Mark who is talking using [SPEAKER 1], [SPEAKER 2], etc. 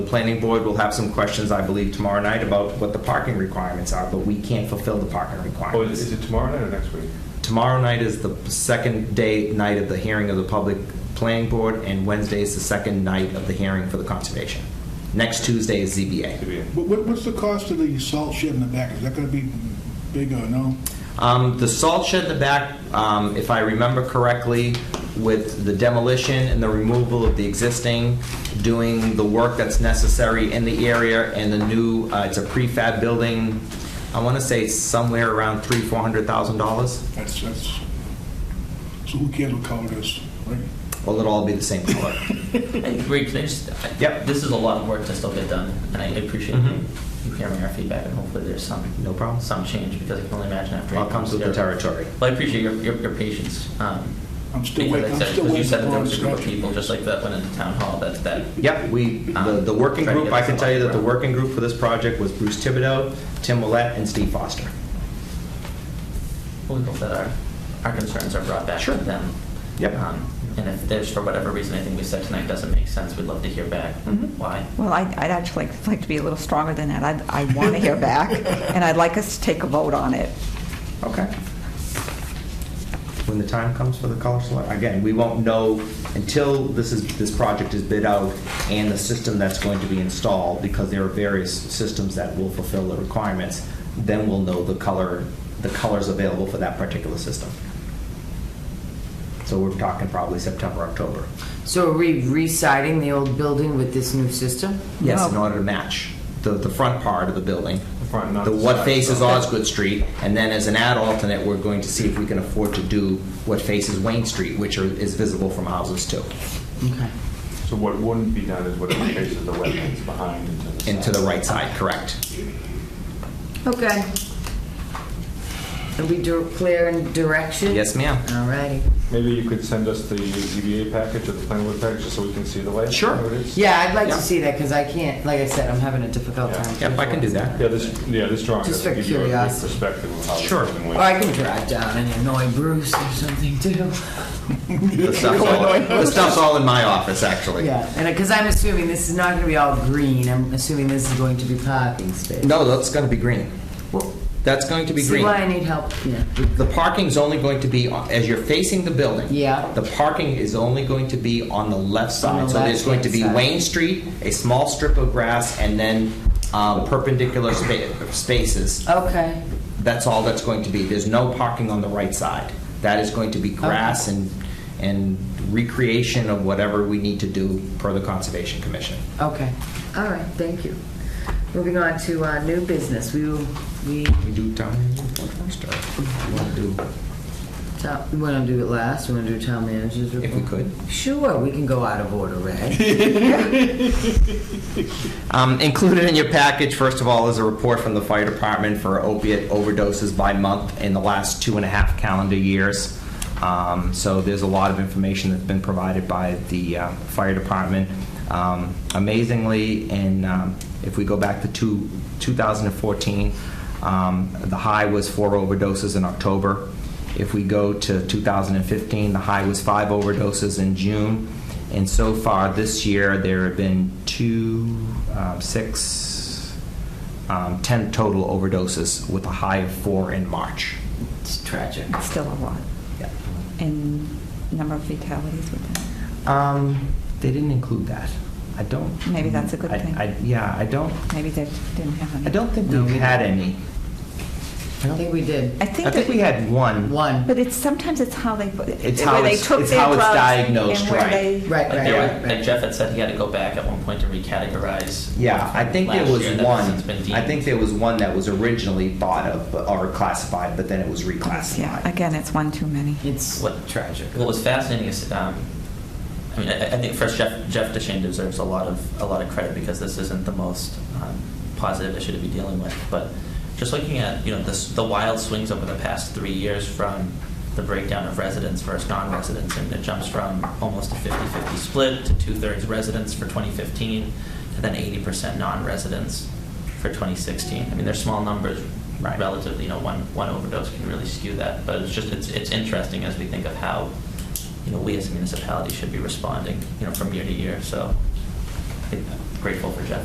[SPEAKER 1] The planning board will have some questions, I believe, tomorrow night about what the parking requirements are, but we can't fulfill the parking
[SPEAKER 2] Oh, is is
[SPEAKER 1] requirements.
[SPEAKER 2] it tomorrow night or next week?
[SPEAKER 1] Tomorrow night is the second day, night of the hearing of the public planning board, and Wednesday is the second night of the hearing for the conservation. Next Tuesday is
[SPEAKER 2] To
[SPEAKER 1] ZBA.
[SPEAKER 2] be in.
[SPEAKER 3] What- What, what's the cost of the salt shed in the back? Is that gonna be big or no?
[SPEAKER 1] Um, The salt shed in the back, um, if I remember correctly, with the demolition and the removal of the existing, doing the work that's necessary in the area and the new, uh, it's a prefab building, I want to say it's somewhere around three, four hundred thousand dollars.
[SPEAKER 3] That's, that's, so who cares what color it is, right?
[SPEAKER 1] Well, it'll all be the same color.
[SPEAKER 4] Hey, Greg, can I just? I-
[SPEAKER 1] Yep.
[SPEAKER 4] This is a lot of work to still get done, and I appreciate
[SPEAKER 1] Mhm.
[SPEAKER 4] you hearing our feedback, and hopefully there's some
[SPEAKER 1] No problem.
[SPEAKER 4] some change because I can only imagine after.
[SPEAKER 1] All
[SPEAKER 4] eight
[SPEAKER 1] comes with the
[SPEAKER 4] months, there-
[SPEAKER 1] territory.
[SPEAKER 4] Well, I appreciate your your, your patience. Um,
[SPEAKER 3] I'm still
[SPEAKER 4] because
[SPEAKER 3] waiting-
[SPEAKER 4] I
[SPEAKER 3] I'm
[SPEAKER 4] said-
[SPEAKER 3] still
[SPEAKER 4] 'cause
[SPEAKER 3] waiting
[SPEAKER 4] You said
[SPEAKER 3] for
[SPEAKER 4] that there was a group of
[SPEAKER 3] Bronze Statue.
[SPEAKER 4] people just like that went into town hall. That that.
[SPEAKER 1] Yep, we, the the working
[SPEAKER 4] Um,
[SPEAKER 1] group, I can tell you that the working group for this project was Bruce Thibodeau, Tim Willett, and Steve Foster.
[SPEAKER 4] We hope that our our concerns are brought back
[SPEAKER 1] Sure.
[SPEAKER 4] to them.
[SPEAKER 1] Yep.
[SPEAKER 4] Um, and if there's for whatever reason anything we said tonight doesn't make sense, we'd love to hear back
[SPEAKER 1] Mhm.
[SPEAKER 4] why.
[SPEAKER 5] Well, I- I'd actually like- like to be a little stronger than that. I'd- I want to hear back, and I'd like us to take a vote on it.
[SPEAKER 1] Okay. When the time comes for the color select, again, we won't know until this is, this project is bid out and the system that's going to be installed, because there are various systems that will fulfill the requirements, then we'll know the color, the colors available for that particular system. So we're talking probably September, October.
[SPEAKER 6] So are we reciting the old building with this new system?
[SPEAKER 1] Yes, in
[SPEAKER 5] Well-
[SPEAKER 1] order to match the, the front part of the building.
[SPEAKER 2] The front, not
[SPEAKER 1] The
[SPEAKER 2] the
[SPEAKER 1] what
[SPEAKER 2] side.
[SPEAKER 1] faces Osgood Street, and then as an add alternate, we're going to see if we can afford to do what faces Wayne Street, which are, is visible from houses too,
[SPEAKER 6] Okay.
[SPEAKER 2] So what wouldn't be done is whatever faces the wetlands behind into the.
[SPEAKER 1] and to the right side, correct?
[SPEAKER 6] Okay. Are we dir- clear in direction?
[SPEAKER 1] Yes, ma'am.
[SPEAKER 6] All righty.
[SPEAKER 2] Maybe you could send us the ZBA package or the planning board package, just so we can see the layout.
[SPEAKER 1] Sure.
[SPEAKER 2] how it is?
[SPEAKER 6] Yeah, I'd like
[SPEAKER 1] Yeah.
[SPEAKER 6] to see that, because I can't, like I said, I'm having a difficult
[SPEAKER 2] Yeah.
[SPEAKER 6] time.
[SPEAKER 1] Yep, I can do that.
[SPEAKER 2] Yeah, this, yeah, this drawing
[SPEAKER 6] Just
[SPEAKER 2] doesn't
[SPEAKER 6] for
[SPEAKER 2] give you a good
[SPEAKER 6] curiosity.
[SPEAKER 2] perspective of how. the
[SPEAKER 1] Sure.
[SPEAKER 2] building
[SPEAKER 6] Or
[SPEAKER 2] went.
[SPEAKER 6] I can drive down and annoy Bruce or something, too.
[SPEAKER 1] The stuff's all, the stuff's all in my office, actually.
[SPEAKER 6] Yeah, and, because I'm assuming this is not going to be all green, I'm assuming this is going to be parking space.
[SPEAKER 1] No, that's gonna be green.
[SPEAKER 6] Well,
[SPEAKER 1] That's going to be green.
[SPEAKER 6] See why I need help? Yeah.
[SPEAKER 1] The parking's only going to be, on- as you're facing the building.
[SPEAKER 6] Yeah.
[SPEAKER 1] The parking is only going to be on the left side.
[SPEAKER 6] On the
[SPEAKER 1] So there's going to be
[SPEAKER 6] left-hand side.
[SPEAKER 1] Wayne Street, a small strip of grass, and then um, perpendicular spa- spaces.
[SPEAKER 6] Okay,
[SPEAKER 1] That's all that's going to be. There's no parking on the right side. That is going to be grass and, and recreation of whatever we need to do per the Conservation Commission.
[SPEAKER 6] okay, all right, thank you. Moving on to uh, new business, we, will- we,
[SPEAKER 1] We do town meeting first, or you wanna do-
[SPEAKER 6] ta- we want to do it last, we want to do town managers report?
[SPEAKER 1] if we could?
[SPEAKER 6] Sure, we can go out of order, Ray.
[SPEAKER 1] Um, included in your package, first of all, is a report from the fire department for opiate overdoses by month in the last two and a half calendar years. Um, so there's a lot of information that's been provided by the uh, fire department. Um, amazingly, in um, if we go back to two, 2014, um, the high was four overdoses in October. If we go to 2015, the high was five overdoses in June. And so far this year, there have been two, um, six, um, 10 total overdoses with a high of four in March.
[SPEAKER 6] It's tragic.
[SPEAKER 5] It's still a lot. And number of fatalities with that.
[SPEAKER 1] Um, They didn't include that. I don't.
[SPEAKER 5] Maybe that's a good
[SPEAKER 1] I-
[SPEAKER 5] thing.
[SPEAKER 1] I- Yeah, I don't,
[SPEAKER 5] Maybe they didn't have any.
[SPEAKER 1] I don't think
[SPEAKER 6] No,
[SPEAKER 1] we've
[SPEAKER 6] we
[SPEAKER 1] had any.
[SPEAKER 6] I don't think we did.
[SPEAKER 5] I
[SPEAKER 1] I
[SPEAKER 5] think
[SPEAKER 1] think we
[SPEAKER 5] that,
[SPEAKER 1] had one.
[SPEAKER 6] One.
[SPEAKER 5] but it's, sometimes it's how they, put it-
[SPEAKER 1] It's how
[SPEAKER 5] where they
[SPEAKER 1] it's-
[SPEAKER 5] took
[SPEAKER 1] it's
[SPEAKER 5] their
[SPEAKER 1] how it's
[SPEAKER 5] drugs
[SPEAKER 1] diagnosed,
[SPEAKER 5] and where
[SPEAKER 1] right.
[SPEAKER 5] they.
[SPEAKER 6] Right, right,
[SPEAKER 4] Like,
[SPEAKER 6] right,
[SPEAKER 4] there were- like
[SPEAKER 6] right.
[SPEAKER 4] Jeff had said he had to go back at one point to recategorize.
[SPEAKER 1] Yeah, I think there
[SPEAKER 4] last
[SPEAKER 1] was
[SPEAKER 4] year that
[SPEAKER 1] one.
[SPEAKER 4] since been
[SPEAKER 1] I
[SPEAKER 4] deemed.
[SPEAKER 1] think there was one that was originally thought of but- or classified, but then it was reclassified.
[SPEAKER 5] Yeah, again, it's one too many.
[SPEAKER 6] It's
[SPEAKER 4] What-
[SPEAKER 6] tragic.
[SPEAKER 4] What was fascinating is, um, I mean, I, I think first Jeff Jeff Deshane deserves a lot of a lot of credit because this isn't the most um, positive issue to be dealing with. But just looking at you know the s the wild swings over the past three years from the breakdown of residents versus non-residents, and it jumps from almost a 50-50 split to two-thirds residents for 2015, to then 80% non-residents for 2016. I mean, they're small numbers
[SPEAKER 1] Right.
[SPEAKER 4] relatively. You know, one one overdose can really skew that. But it's just it's it's interesting as we think of how you know, we as a municipality should be responding, you know, from year to year, so. I think that- grateful for Jeff